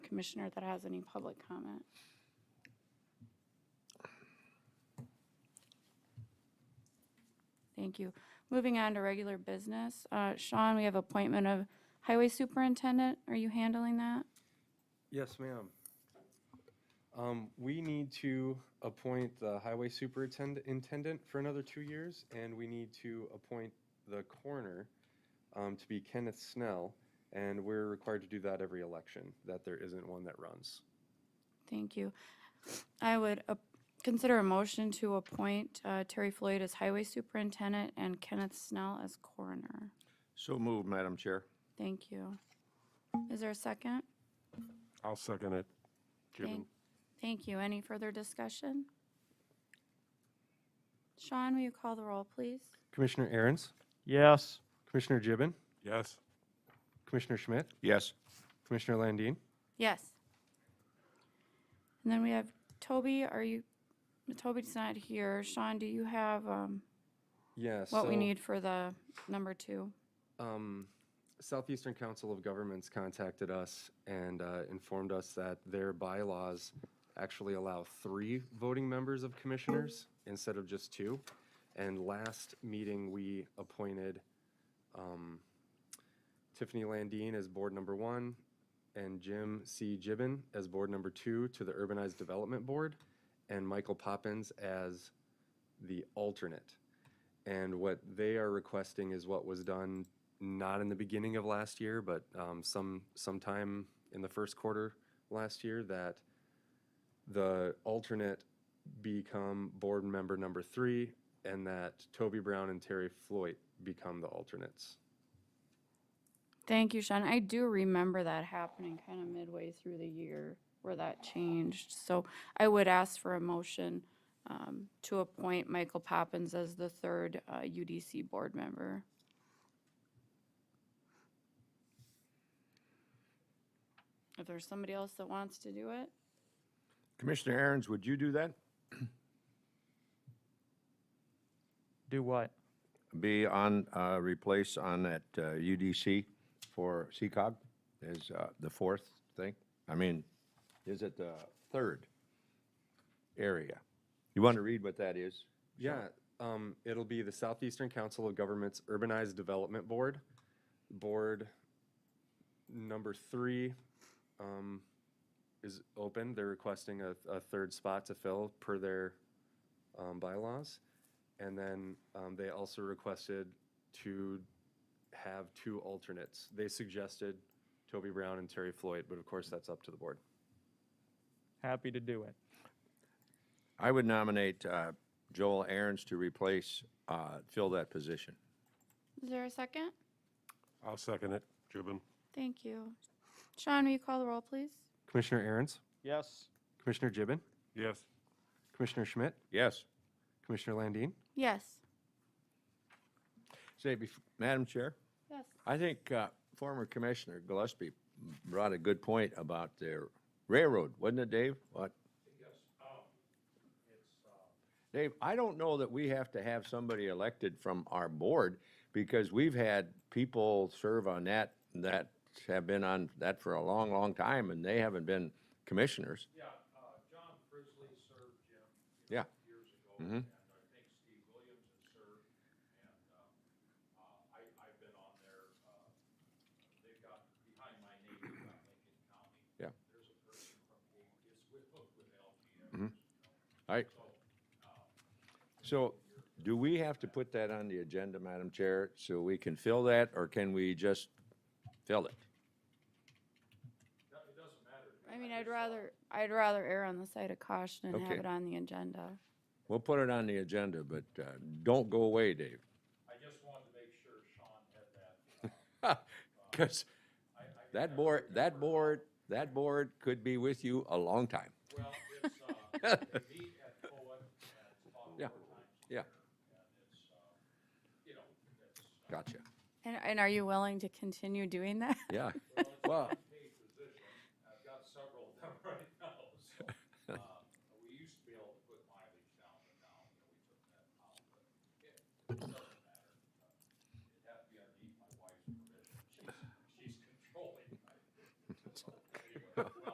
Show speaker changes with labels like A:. A: commissioner that has any public comment. Thank you. Moving on to regular business. Uh, Sean, we have appointment of highway superintendent. Are you handling that?
B: Yes, ma'am. Um, we need to appoint the highway superintendent intendant for another two years, and we need to appoint the coroner um, to be Kenneth Snell, and we're required to do that every election, that there isn't one that runs.
A: Thank you. I would uh, consider a motion to appoint uh, Terry Floyd as highway superintendent and Kenneth Snell as coroner.
C: So moved, Madam Chair.
A: Thank you. Is there a second?
D: I'll second it.
A: Thank-
D: Given,
A: Thank you. Any further discussion? Sean, will you call the roll, please?
B: Commissioner Aaron's,
C: Yes.
B: Commissioner Gibbon,
D: yes,
B: Commissioner Schmidt,
C: Yes.
B: Commissioner Landine.
A: Yes. And then we have Toby, are you, Toby's not here. Sean, do you have um,
B: Yes.
A: what we need for the number two?
B: um, Southeastern Council of Governments contacted us and uh, informed us that their bylaws actually allow three voting members of commissioners instead of just two. And last meeting, we appointed um, Tiffany Landine as board number one and Jim C. Gibbon as board number two to the Urbanized Development Board and Michael Poppins as the alternate. And what they are requesting is what was done not in the beginning of last year, but um, some sometime in the first quarter last year that the alternate become board member number three, and that Toby Brown and Terry Floyd become the alternates.
A: Thank you, Sean. I do remember that happening kind of midway through the year where that changed. So I would ask for a motion um, to appoint Michael Poppins as the third uh, UDC board member. If there's somebody else that wants to do it,
C: Commissioner Aaron's, would you do that?
E: Do what?
C: Be on, uh, replace on that uh, UDC for CCOG is uh, the fourth thing? I mean, is it the third area? You want to read what that is?
B: Yeah, um, it'll be the Southeastern Council of Governments Urbanized Development Board, Board number three, um, is open. They're requesting a, a third spot to fill per their, um, bylaws. And then, um, they also requested to have two alternates. They suggested Toby Brown and Terry Floyd, but of course, that's up to the board.
E: Happy to do it.
C: I would nominate uh, Joel Aaron's to replace, uh, fill that position.
A: is there a second?
D: I'll second it. Given,
A: Thank you. Sean, will you call the roll, please?
B: Commissioner Aaron's,
E: Yes.
B: Commissioner Gibbon,
D: yes,
B: Commissioner Schmidt,
C: Yes.
B: Commissioner Landine.
A: Yes.
C: Say, bef- Madam Chair?
A: Yes.
C: I think uh, former Commissioner Gillespie brought a good point about the railroad, wasn't it, Dave? What? um, Dave, I don't know that we have to have somebody elected from our board because we've had people serve on that, that have been on that for a long, long time and they haven't been commissioners. Yeah, John Frisley served, Jim. Yeah. All right. So do we have to put that on the agenda, Madam Chair, so we can fill that, or can we just fill it?
A: I mean, I'd rather, I'd rather err on the side of caution and have
C: Okay.
A: it on the agenda.
C: We'll put it on the agenda, but uh, don't go away, Dave. I just wanted to make sure Sean had that. Because that board, that board, that board could be with you a long time. Well, it's, uh, they meet at Cohen and it's Yeah, yeah. Gotcha. uh,
A: And, and are you willing to continue doing that?
C: Yeah, well, um,